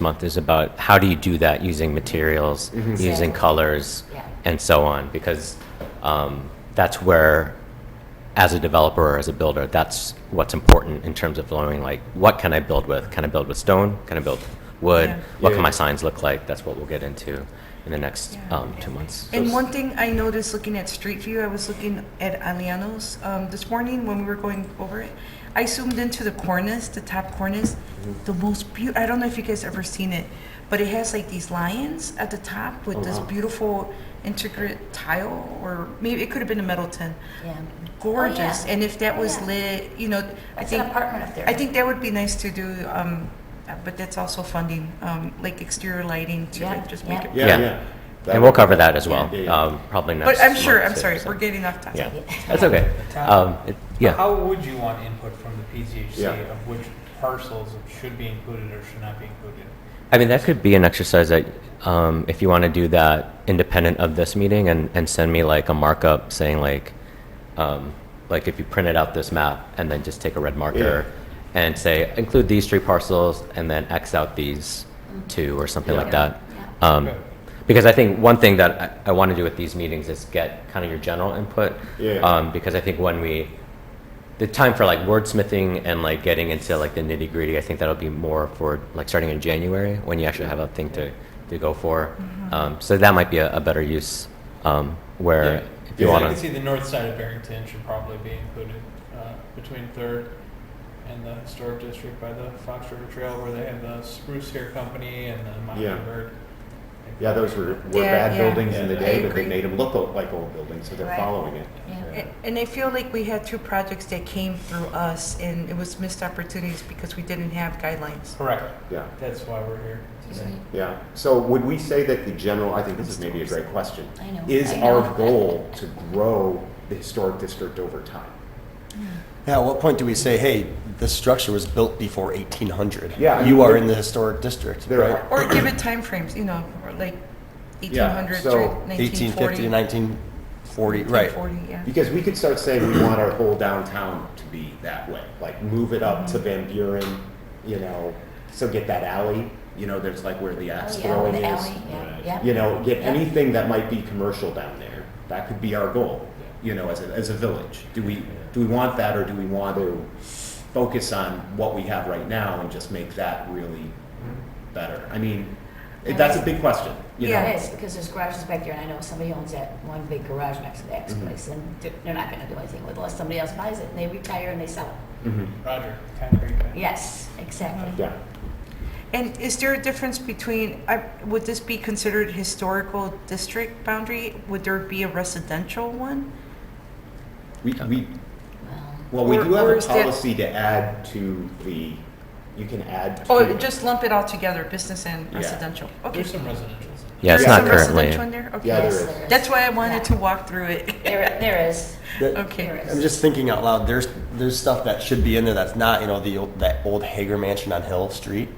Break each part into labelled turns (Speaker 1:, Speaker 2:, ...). Speaker 1: month is about how do you do that using materials,
Speaker 2: Mm-hmm.
Speaker 1: using colors,
Speaker 3: Yeah.
Speaker 1: and so on, because um, that's where, as a developer or as a builder, that's what's important in terms of knowing like what can I build with? Can I build with stone? Can I build wood?
Speaker 2: Yeah.
Speaker 1: What can
Speaker 4: Yeah.
Speaker 1: my signs look like? That's what we'll get into in the next um, two months.
Speaker 2: And one thing I noticed looking at Street View, I was looking at Aliano's um, this morning when we were going over it. I zoomed into the cornice, the top cornice, the most beautiful. I don't know if you guys ever seen it, but it has like these lions at the top with this beautiful intricate tile, or maybe it could have been a metal tin.
Speaker 3: Yeah.
Speaker 2: Gorgeous.
Speaker 3: Oh, yeah.
Speaker 2: And if that was
Speaker 3: Yeah.
Speaker 2: lit, you know, I
Speaker 3: It's an
Speaker 2: think
Speaker 3: apartment up there.
Speaker 2: I think that would be nice to do. Um, uh, but that's also funding, um, like exterior lighting to
Speaker 3: Yeah,
Speaker 2: like just make
Speaker 3: yeah.
Speaker 2: it.
Speaker 4: Yeah,
Speaker 1: Yeah.
Speaker 4: yeah. That
Speaker 1: And we'll
Speaker 4: would-
Speaker 1: cover that as well,
Speaker 4: Yeah, yeah.
Speaker 1: um, probably next.
Speaker 2: But I'm sure,
Speaker 1: month,
Speaker 2: I'm
Speaker 1: too,
Speaker 2: sorry,
Speaker 1: so-
Speaker 2: we're getting off topic.
Speaker 1: Yeah, that's okay. Um, it- Yeah,
Speaker 5: How would you want input from the PCHC
Speaker 4: Yeah.
Speaker 5: of which parcels should be included or should not be included?
Speaker 1: I mean, that could be an exercise that, um, if you want to do that independent of this meeting and, and send me like a markup saying like, um, like if you printed out this map and then just take a red marker and say, include these three parcels and then X out these two or something like
Speaker 3: Yeah.
Speaker 1: that. Um,
Speaker 5: Okay.
Speaker 1: because I think one thing that I, I want to do at these meetings is get kind of your general input.
Speaker 4: Yeah.
Speaker 1: Um, because I think when we, the time for like wordsmithing and like getting into like the nitty gritty, I think that'll be more for like starting in January when you actually have a thing to, to go for.
Speaker 4: Mm-hmm.
Speaker 1: Um, so that might be a, a better use um, where
Speaker 5: Yeah.
Speaker 1: if you
Speaker 5: I
Speaker 4: Yeah.
Speaker 1: want
Speaker 5: can
Speaker 1: to.
Speaker 5: see the north side of Barrington should probably be included, uh, between Third and the historic district by the Fox River Trail where they have the Spruce Hair Company and the
Speaker 4: Yeah.
Speaker 5: Mockingbird.
Speaker 4: Yeah, those were, were
Speaker 2: Yeah,
Speaker 4: bad
Speaker 2: yeah.
Speaker 4: buildings in the
Speaker 5: I
Speaker 4: day, but
Speaker 2: agree.
Speaker 4: they made them look o- like old buildings, so they're
Speaker 3: Right.
Speaker 4: following it.
Speaker 3: Yeah.
Speaker 2: A- And I feel like we had two projects that came through us, and it was missed opportunities because we didn't have guidelines.
Speaker 5: Correct,
Speaker 4: Yeah,
Speaker 5: that's why we're here today.
Speaker 4: yeah. So would we say that the general, I think this is maybe a great question.
Speaker 3: I know,
Speaker 4: Is
Speaker 3: I
Speaker 4: our
Speaker 3: know.
Speaker 4: goal to grow the historic district over time?
Speaker 6: Yeah, at what point do we say, hey, this structure was built before 1800?
Speaker 4: Yeah, I
Speaker 6: You
Speaker 4: mean,
Speaker 6: are
Speaker 4: there-
Speaker 6: in the historic district,
Speaker 4: There
Speaker 6: right?
Speaker 2: Or
Speaker 4: are,
Speaker 2: give it timeframes, you know, or like
Speaker 4: Yeah,
Speaker 2: 1800
Speaker 4: so
Speaker 2: through
Speaker 6: 1850
Speaker 2: 1940.
Speaker 6: to 1940, right.
Speaker 2: 1940, yeah.
Speaker 4: because we could start saying we want our whole downtown to be that way, like move it up
Speaker 3: Mm-hmm.
Speaker 4: to Van Buren, you know, so get that alley, you know, there's like where the axe
Speaker 3: Oh, yeah, with
Speaker 4: throwing
Speaker 3: the
Speaker 4: is.
Speaker 3: alley, yeah, yeah.
Speaker 4: You know, get
Speaker 3: Yeah.
Speaker 4: anything that might be commercial down there. That could be our goal, you know, as a, as a village. Do we, do we want that or do we want to focus on what we have right now and just make that really better? I mean, it- that's a big question, you
Speaker 2: Yeah.
Speaker 4: know?
Speaker 3: It is, because there's garages back there, and I know somebody owns that one big garage next to the ex
Speaker 4: Mm-hmm.
Speaker 3: place, and they're they're not gonna do anything with it unless somebody else buys it, and they retire and they sell it.
Speaker 4: Mhm.
Speaker 5: Roger, concrete. man.
Speaker 3: Yes, exactly.
Speaker 4: Yeah.
Speaker 2: And is there a difference between, I- would this be considered historical district boundary? Would there be a residential one?
Speaker 4: We, we,
Speaker 3: Well,
Speaker 4: well, we
Speaker 2: Or-
Speaker 4: do have
Speaker 2: or
Speaker 4: a
Speaker 2: is that-
Speaker 4: policy to add to the, you can add.
Speaker 2: Or
Speaker 4: to-
Speaker 2: just lump Oh, it all together, business and
Speaker 4: Yeah.
Speaker 2: residential? Okay.
Speaker 5: There's some residential's.
Speaker 1: Yeah, it's
Speaker 2: There's
Speaker 1: not
Speaker 2: some
Speaker 1: currently.
Speaker 2: residential in there? Okay.
Speaker 4: Yeah, there
Speaker 3: yes,
Speaker 4: is.
Speaker 3: there is.
Speaker 2: That's why I wanted to
Speaker 3: Yeah.
Speaker 2: walk through it.
Speaker 3: There, there is.
Speaker 6: That-
Speaker 2: Okay.
Speaker 3: There is.
Speaker 6: I'm just thinking out loud, there's, there's stuff that should be in there that's not, you know, the, old- that old Hager Mansion on Hill Street.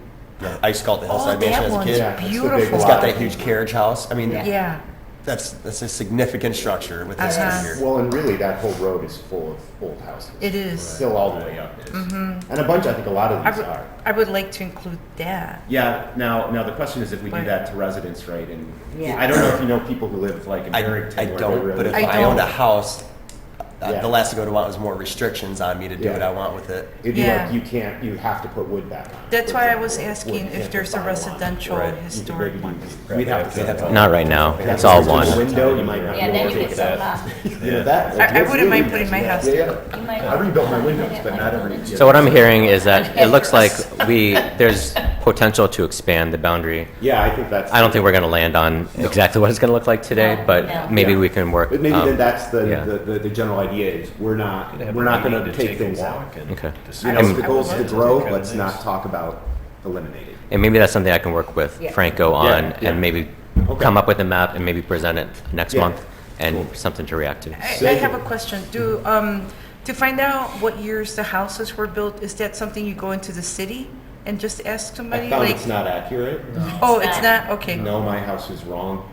Speaker 6: Yeah, I used to call it the
Speaker 2: Oh,
Speaker 6: Hillside Mansion
Speaker 2: that
Speaker 6: as a
Speaker 2: one's
Speaker 6: kid.
Speaker 4: Yeah, it's the big
Speaker 2: beautiful.
Speaker 6: It's
Speaker 4: one.
Speaker 6: got that huge carriage house. I mean,
Speaker 3: Yeah.
Speaker 2: Yeah.
Speaker 6: that's, that's a significant structure with history
Speaker 2: Uh-huh.
Speaker 6: here.
Speaker 4: Well, and really, that whole road is full of old houses.
Speaker 2: It Mm-hmm. is.
Speaker 4: Still all the way up. And a bunch, I think a lot of
Speaker 2: I
Speaker 4: these
Speaker 2: would,
Speaker 4: are.
Speaker 2: I would like to include that.
Speaker 4: Yeah, now, now the question is if we do
Speaker 2: Right.
Speaker 4: that to residents, right? And
Speaker 3: Yeah.
Speaker 4: I don't know if you know people who live like in
Speaker 6: I,
Speaker 4: Barrington.
Speaker 6: I
Speaker 4: where they
Speaker 6: don't, but
Speaker 4: really-
Speaker 6: if
Speaker 2: I
Speaker 6: I owned a
Speaker 2: don't.
Speaker 6: house, uh,
Speaker 4: Yeah.
Speaker 6: the last thing I would want was more restrictions on me to do
Speaker 4: Yeah.
Speaker 6: what I want with it.
Speaker 4: It'd be
Speaker 2: Yeah.
Speaker 4: like, you can't, you have to put wood back on.
Speaker 2: That's
Speaker 4: for
Speaker 2: why I was
Speaker 4: example. Wood
Speaker 2: asking if
Speaker 4: can't
Speaker 2: there's
Speaker 4: be
Speaker 2: a
Speaker 4: on a lot.
Speaker 2: residential
Speaker 6: Right.
Speaker 2: historic one.
Speaker 4: We'd have
Speaker 6: They'd have
Speaker 4: to.
Speaker 6: to-
Speaker 1: Not right now.
Speaker 4: Yeah,
Speaker 1: It's all
Speaker 4: if there's a
Speaker 1: one.
Speaker 4: Window, you might not.
Speaker 3: Yeah,
Speaker 4: be
Speaker 3: then
Speaker 4: able
Speaker 3: you
Speaker 4: to
Speaker 3: get
Speaker 4: take
Speaker 3: some,
Speaker 4: it out.
Speaker 3: uh,
Speaker 4: You know, that.
Speaker 2: I- I
Speaker 4: that's
Speaker 2: wouldn't mind
Speaker 4: really
Speaker 2: putting my
Speaker 4: nice.
Speaker 2: house
Speaker 4: Yeah,
Speaker 3: you
Speaker 4: yeah.
Speaker 3: might.
Speaker 4: I rebuilt my windows, but not every.
Speaker 1: So what I'm hearing is that it looks like we, there's potential to expand the boundary.
Speaker 4: Yeah, I think that's.
Speaker 1: I don't think we're going to land on exactly what it's going to look like today,
Speaker 3: No, no.
Speaker 1: but maybe
Speaker 4: Yeah.
Speaker 1: we can work.
Speaker 4: But maybe
Speaker 1: um,
Speaker 4: then that's the,
Speaker 1: yeah.
Speaker 4: the, the, the general idea is we're not, we're not going to take things out.
Speaker 1: Okay.
Speaker 4: You know, if the
Speaker 1: And-
Speaker 4: goal is to grow, let's not talk about eliminating.
Speaker 1: And maybe that's something I can work with
Speaker 3: Yeah.
Speaker 1: Franco
Speaker 4: Yeah,
Speaker 1: on
Speaker 4: yeah.
Speaker 1: and maybe
Speaker 4: Okay.
Speaker 1: come up with a map and maybe present it next
Speaker 4: Yeah.
Speaker 1: month and something to react to.
Speaker 2: I, I have a question. Do, um, to find out what years the houses were built, is that something you go into the city and just ask somebody?
Speaker 4: I found
Speaker 2: Like-
Speaker 4: it's not accurate.
Speaker 2: Oh,
Speaker 3: It's
Speaker 2: it's
Speaker 3: not.
Speaker 2: not? Okay.
Speaker 4: No, my house was wrong.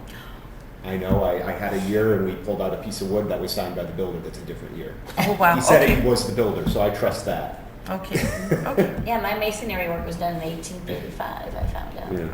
Speaker 4: I know, I, I had a year and we pulled out a piece of wood that was signed by the builder that's a different year.
Speaker 2: Oh, wow.
Speaker 4: He said
Speaker 2: Okay.
Speaker 4: he was the builder, so I trust that.
Speaker 2: Okay, okay.
Speaker 3: Yeah, my masonry work was done in eighteen thirty-five, I found out. yeah.
Speaker 4: Yeah.